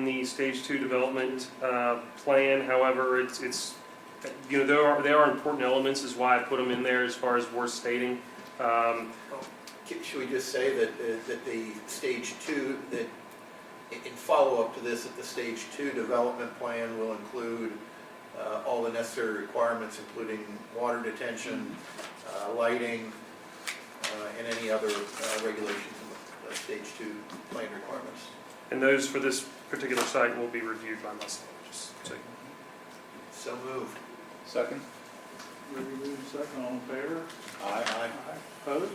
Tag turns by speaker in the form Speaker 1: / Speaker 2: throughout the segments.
Speaker 1: In the stage two development uh, plan, however, it's, it's, you know, there are, there are important elements, is why I put them in there as far as worth stating. Um,
Speaker 2: Should should we just say that, uh, that the stage two, that i- in follow-up to this, that the stage two development plan will include uh, all the necessary requirements, including water detention, uh, lighting, uh, and any other uh, regulations in the uh, stage two plan requirements?
Speaker 1: And those for this particular site will be reviewed by myself, just so you
Speaker 2: So moved.
Speaker 3: Second?
Speaker 4: Ruby moved second, all in favor?
Speaker 3: Aye.
Speaker 4: Aye. Opposed?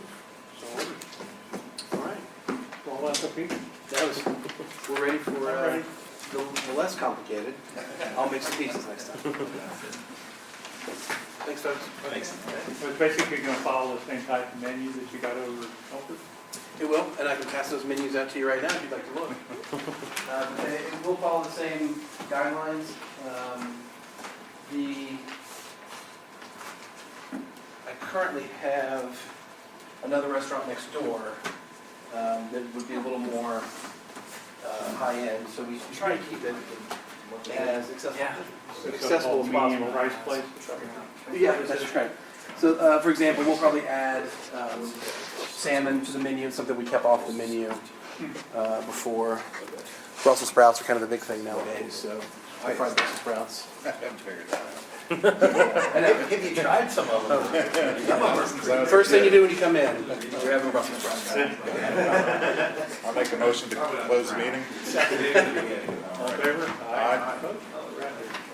Speaker 4: So ordered. All right, roll out the feet.
Speaker 5: That was, we're ready for
Speaker 4: All
Speaker 5: uh,
Speaker 4: right.
Speaker 5: the the less complicated. I'll make some pieces next time. Thanks, folks.
Speaker 3: Thanks.
Speaker 4: So it's basically gonna follow the same type of menu that you got over at Comfort.
Speaker 5: It will, and I can pass those menus out to you right now if you'd like to look. Um, and It it will follow the same guidelines. Um, The, I currently have another restaurant next door um, that would be a little more uh, high-end, so we try to keep it as accessible accessible as
Speaker 4: Medium
Speaker 5: possible.
Speaker 4: Price place.
Speaker 5: Yeah, that's right. So, uh, for example, we'll probably add um, salmon to the menu, something we kept off the menu uh, before. Brussels sprouts are kind of the big thing nowadays, so I fried Brussels sprouts.
Speaker 3: I haven't figured that out.
Speaker 5: I know.
Speaker 2: Have you tried some of them?
Speaker 5: First thing you do when you come in, you're having Brussels sprouts.
Speaker 3: I'll make a motion to close the meeting.
Speaker 4: All in favor?
Speaker 3: Aye.
Speaker 4: Opposed? All right.